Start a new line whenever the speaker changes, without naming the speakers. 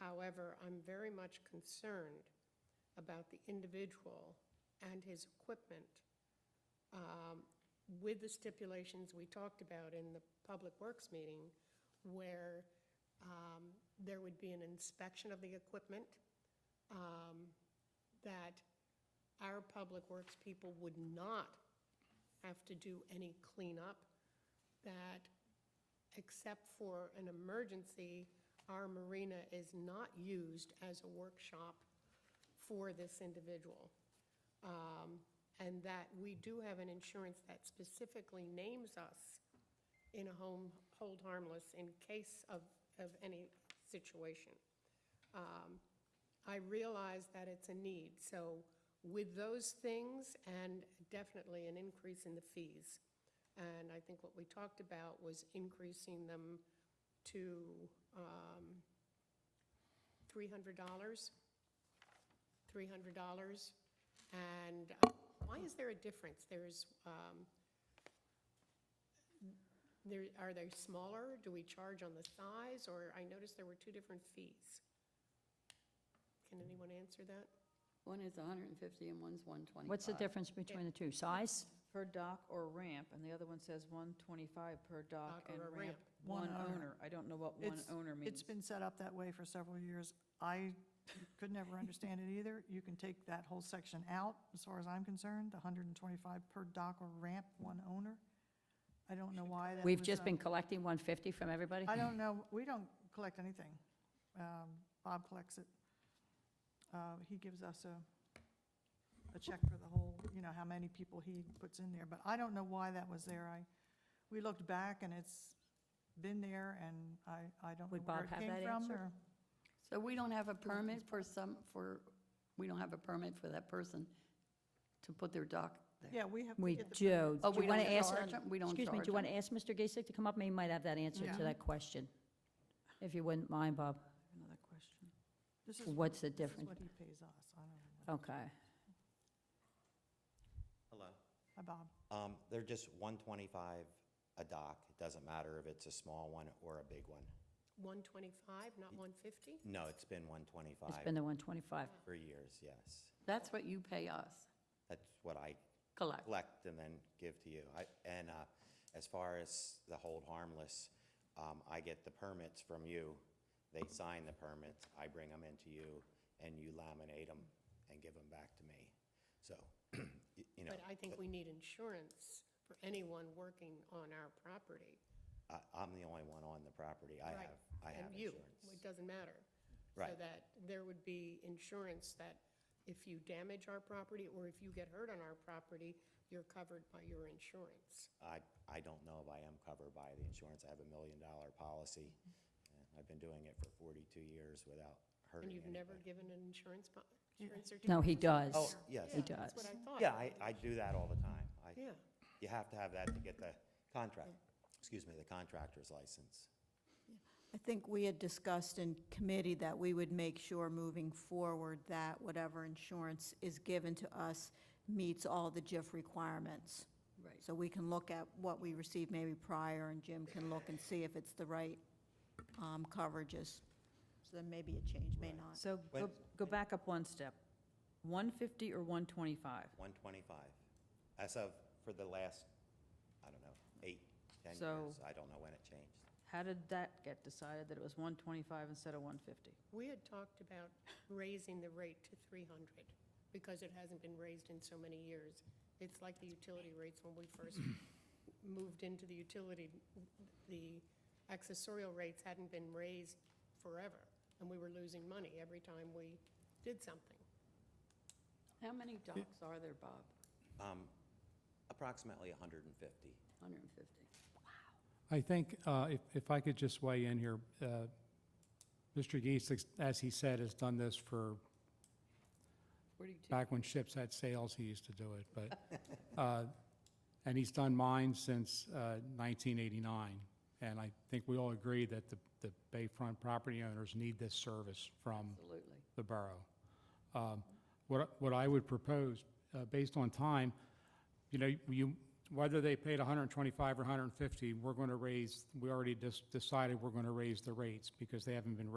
However, I'm very much concerned about the individual and his equipment um, with the stipulations we talked about in the Public Works meeting, where um, there would be an inspection of the equipment, um, that our Public Works people would not have to do any cleanup, that except for an emergency, our marina is not used as a workshop for this individual. Um, And that we do have an insurance that specifically names us in a home, hold harmless in case of, of any situation. Um, I realize that it's a need, so with those things and definitely an increase in the fees. And I think what we talked about was increasing them to um, $300, $300. And uh, why is there a difference? There's, um, there, are they smaller? Do we charge on the size? Or I noticed there were two different fees. Can anyone answer that?
One is 150 and one's 125.
What's the difference between the two? Size?
Per dock or ramp, and the other one says 125 per dock
Dock Uh, or
and
a
ramp.
ramp.
One
One owner.
owner. I don't know what one
It's-
owner means.
It's been set up that way for several years. I could never understand it either. You can take that whole section out, as far as I'm concerned, 125 per dock or ramp, one owner. I don't know why that
We've
was
just
done.
been collecting 150 from everybody?
I don't know, we don't collect anything. Um, Bob collects it. Uh, He gives us a, a check for the whole, you know, how many people he puts in there, but I don't know why that was there. I, we looked back and it's been there, and I, I don't know
Would
where
Bob
it
have
came
that
from,
answer?
or...
So we don't have a permit for some, for, we don't have a permit for that person to put their dock there.
Yeah, we have.
We,
get the
Joe,
Oh,
do
we
you want to
don't
ask?
charge 'em? We don't
Excuse me, do
charge
you want to
'em?
ask Mr. Gasek to come up? He might have that answer
Yeah.
to that question, if you wouldn't mind, Bob.
Another question.
This is-
What's the
this is
difference?
what he pays us. I don't know.
Okay.
Hello.
Hi, Bob.
Um, they're just one twenty-five a dock. It doesn't matter if it's a small one or a big one.
125, not 150?
No, it's been one
It's been the 125.
twenty-five for years, yes.
That's what you pay us,
That's what I
collect.
collect and then give to you. I, and, uh, as far as the hold harmless, um, I get the permits from you. They sign the permits, I bring them into you, and you laminate them and give them back to me. So, y- you know.
But I think we need insurance for anyone working on our property.
I, I'm the only one on the property. I
Right.
have, I have
And you,
insurance.
it doesn't matter. So
Right.
that there would be insurance that if you damage our property or if you get hurt on our property, you're covered by your insurance.
I, I don't know if I am covered by the insurance. I have a million-dollar policy. and I've been doing it for 42 years without hurting
And you've never
anybody.
given an insurance, po- insurance certificate?
No, he does.
Oh, yes.
Yeah,
He
That's what
does.
I thought.
Yeah, I, I do that all the time. I-
Yeah.
You have to have that to get the contract, excuse me, the contractor's license.
I think we had discussed in committee that we would make sure moving forward that whatever insurance is given to us meets all the GIF requirements.
Right.
So we can look at what we received maybe prior, and Jim can look and see if it's the right um, coverages. So then maybe a change, may not.
So go,
When-
go back up one step. 150 or 125?
125. As of, for the last, I don't know, eight, 10
So-
years. I don't know when it changed.
How did that get decided, that it was 125 instead of 150?
We had talked about raising the rate to 300 because it hasn't been raised in so many years. It's like the utility rates when we first moved into the utility, the accessorial rates hadn't been raised forever, and we were losing money every time we did something.
How many docks are there, Bob?
Um, Approximately 150.
150.
I think, uh, if, if I could just weigh in here, uh, Mr. Geese, as he said, has done this for,
42.
back when ships had sails, he used to do it, but, uh, and he's done mine since uh, 1989. And I think we all agree that the, the bayfront property owners need this service from
Absolutely.
the borough. Um, What, I- what I would propose, uh, based on time, you know, you, whether they paid 125 or 150, we're going to raise, we already just decided we're going to raise the rates because they haven't been